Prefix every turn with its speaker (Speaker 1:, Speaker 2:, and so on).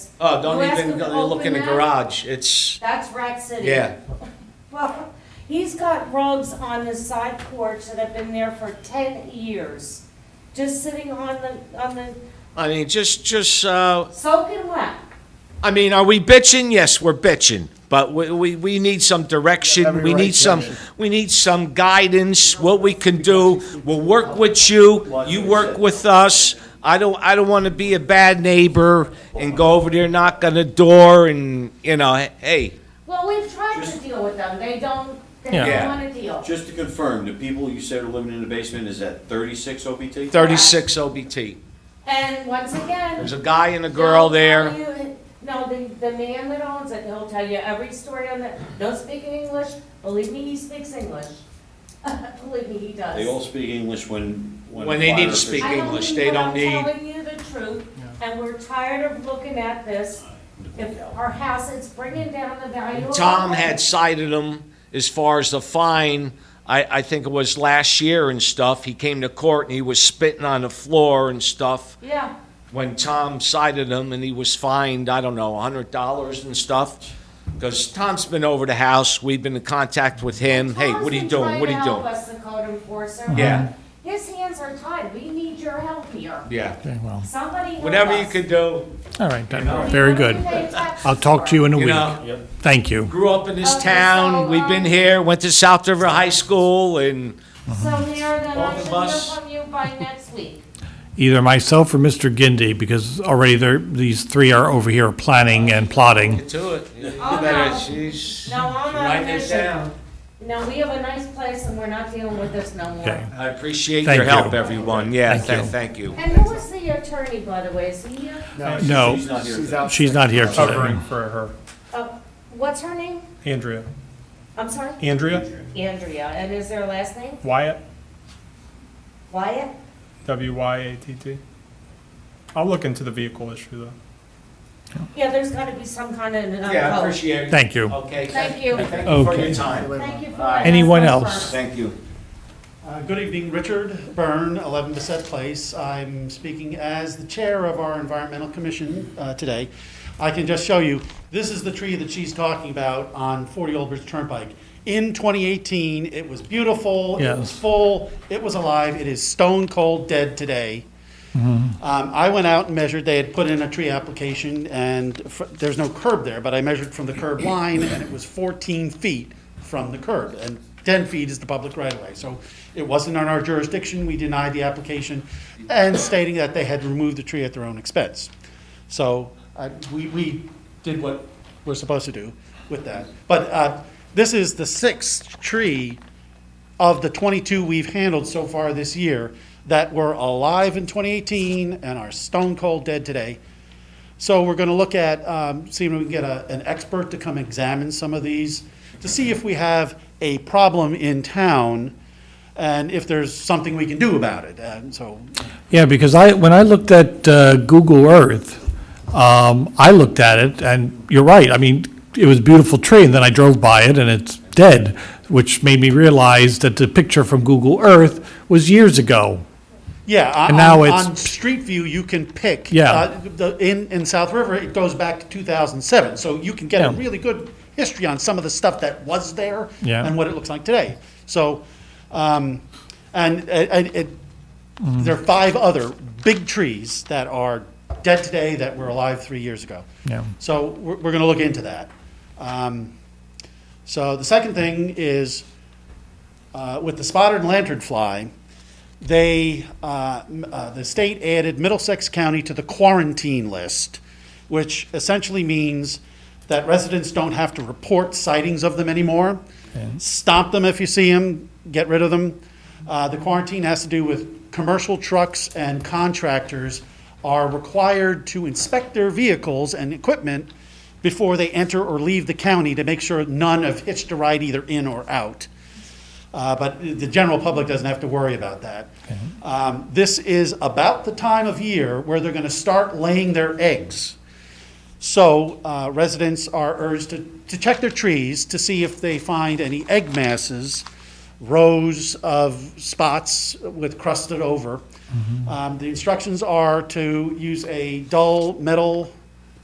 Speaker 1: Oh, don't
Speaker 2: You ask
Speaker 1: even
Speaker 2: him to
Speaker 1: go- look in the
Speaker 2: open that?
Speaker 1: garage. It's,
Speaker 2: That's Rat City.
Speaker 1: yeah.
Speaker 2: Well, he's got rugs on his side porch that have been there for ten years, just sitting on the, on the,
Speaker 1: I mean, just, just, uh,
Speaker 2: soaking wet.
Speaker 1: I mean, are we bitching? Yes, we're bitching, but we, we, we need some direction.
Speaker 3: Every
Speaker 1: We
Speaker 3: right
Speaker 1: need some,
Speaker 3: direction.
Speaker 1: we need some guidance, what we can do. We'll work with you, you work with us. I don't, I don't want to be a bad neighbor and go over there, knock on the door and, you know, hey,
Speaker 2: Well, we've tried to
Speaker 4: Just-
Speaker 2: deal with them, they don't, they
Speaker 1: Yeah.
Speaker 2: don't wanna deal.
Speaker 4: Just to confirm, the people you said are living in the basement is at thirty-six OPT?
Speaker 1: thirty-six OBT.
Speaker 2: And once again.
Speaker 1: There's a guy and a girl
Speaker 2: he'll
Speaker 1: there.
Speaker 2: tell you- No, the, the man that owns it, he'll tell you every story on that, don't speak English, believe me, he speaks English. Believe me, he does.
Speaker 4: They all speak English when, when.
Speaker 1: When they need
Speaker 4: fire
Speaker 1: to speak
Speaker 2: I
Speaker 4: officials-
Speaker 2: don't
Speaker 1: English,
Speaker 2: need
Speaker 1: they
Speaker 2: what
Speaker 1: don't
Speaker 2: I'm
Speaker 1: need-
Speaker 2: Telling you the truth, and we're tired of looking at this, if our house, it's bringing down the value of. our
Speaker 1: Tom
Speaker 2: home.
Speaker 1: had cited him as far as the fine, I, I think it was last year and stuff. He came to court and he was spitting on the floor and stuff.
Speaker 2: Yeah,
Speaker 1: When Tom cited him and he was fined, I don't know, a hundred dollars and stuff. Because Tom's been over the house, we've been in contact with him. Hey,
Speaker 2: Tom's
Speaker 1: what are you
Speaker 2: been
Speaker 1: doing?
Speaker 2: trying
Speaker 1: What are
Speaker 2: to
Speaker 1: you
Speaker 2: help
Speaker 1: doing?
Speaker 2: us, the code enforcer.
Speaker 1: Yeah.
Speaker 2: His hands are tied, we need your help here,
Speaker 1: Yeah,
Speaker 3: Okay, well,
Speaker 2: somebody help
Speaker 1: whatever you
Speaker 2: us.
Speaker 1: could do.
Speaker 3: all right, then.
Speaker 2: We
Speaker 3: Oh. very
Speaker 2: don't
Speaker 3: good.
Speaker 2: even pay taxes
Speaker 3: I'll talk to
Speaker 2: for
Speaker 3: you in a
Speaker 1: You
Speaker 3: week.
Speaker 1: know,
Speaker 3: Thank you.
Speaker 1: grew up in this
Speaker 2: Okay,
Speaker 1: town.
Speaker 2: so,
Speaker 1: We've been
Speaker 2: um,
Speaker 1: here, went to South River High School and
Speaker 2: it. So Mayor, then I
Speaker 1: Off the
Speaker 2: should hear
Speaker 1: bus.
Speaker 2: from you by next week.
Speaker 3: Either myself or Mr. Gindi, because already there, these three are over here planning and plotting.
Speaker 1: get to it. You
Speaker 2: Oh,
Speaker 1: better-
Speaker 2: no.
Speaker 1: she's-
Speaker 2: No, I'm not
Speaker 1: Write this
Speaker 2: efficient.
Speaker 1: down.
Speaker 2: No, we have a nice place and we're not dealing with this no more.
Speaker 3: Okay.
Speaker 1: I appreciate
Speaker 3: Thank
Speaker 1: your help,
Speaker 3: you.
Speaker 1: everyone. Yeah,
Speaker 3: Thank
Speaker 1: thank,
Speaker 3: you.
Speaker 1: thank you.
Speaker 2: And who was the attorney, by the way, is he here?
Speaker 3: No,
Speaker 4: She's not here
Speaker 5: She's
Speaker 4: today.
Speaker 5: out.
Speaker 3: she's not here today.
Speaker 6: covering for her.
Speaker 2: Oh, what's her name?
Speaker 6: Andrea.
Speaker 2: I'm sorry?
Speaker 6: Andrea
Speaker 2: Andrea, and is their last name
Speaker 6: Wyatt,
Speaker 2: Wyatt?
Speaker 6: W Y A T T. I'll look into the vehicle issue though.
Speaker 2: Yeah, there's gotta be some kind of, uh,
Speaker 1: Yeah, I
Speaker 2: code.
Speaker 1: appreciate it.
Speaker 3: Thank you.
Speaker 1: Okay.
Speaker 2: Thank you.
Speaker 1: Thank you for your
Speaker 3: Okay.
Speaker 1: time.
Speaker 2: Thank you for. letting us
Speaker 1: Alright.
Speaker 3: Anyone
Speaker 2: go
Speaker 3: else?
Speaker 2: first.
Speaker 4: Thank you.
Speaker 5: Uh, Good evening, Richard Byrne, 11 Bissett Place. I'm speaking as the chair of our environmental commission uh, today. I can just show you, this is the tree that she's talking about on 40 Old Bridge Turnpike. In 2018, it was beautiful, it was
Speaker 3: Yes.
Speaker 5: full, it was alive, it is stone cold dead today. Um, I went out and measured, they had put in a tree application, and fr- there's no curb there, but I measured from the curb line, and it was 14 feet from the curb, and 10 feet is the public right-of-way. So it wasn't on our jurisdiction, we denied the application, and stating that they had removed the tree at their own expense. So I- we, we did what we're supposed to do with that. But uh, this is the sixth tree of the 22 we've handled so far this year that were alive in 2018 and are stone cold dead today. So we're going to look at, um, seeing if we can get a, an expert to come examine some of these to see if we have a problem in town and if there's something we can do about it. And so
Speaker 3: Yeah, because I, when I looked at uh, Google Earth, um, I looked at it, and you're right, I mean, it was a beautiful tree, and then I drove by it, and it's dead, which made me realize that the picture from Google Earth was years ago.
Speaker 5: Yeah, on,
Speaker 3: And now
Speaker 5: on-
Speaker 3: it's-
Speaker 5: on Street View, you can pick.
Speaker 3: Yeah.
Speaker 5: uh, the, in, in South River, it goes back to 2007, so you can get a
Speaker 3: Yeah.
Speaker 5: really good history on some of the stuff that was there
Speaker 3: Yeah.
Speaker 5: and what it looks like today. So, um, and, and it,
Speaker 3: Mm.
Speaker 5: there are five other big trees that are dead today that were alive three years ago.
Speaker 3: Yeah.
Speaker 5: So we're, we're going to look into that. Um, so the second thing is uh, with the spotted lantern fly, they, uh, m- uh, the state added Middlesex County to the quarantine list, which essentially means that residents don't have to report sightings of them anymore. Stop them if you see them, get rid of them. Uh, the quarantine has to do with commercial trucks and contractors are required to inspect their vehicles and equipment before they enter or leave the county to make sure none have hitched a ride either in or out. Uh, but the general public doesn't have to worry about that. Um, this is about the time of year where they're going to start laying their eggs. So uh, residents are urged to, to check their trees to see if they find any egg masses, rows of spots with crusted over. Um, the instructions are to use a dull metal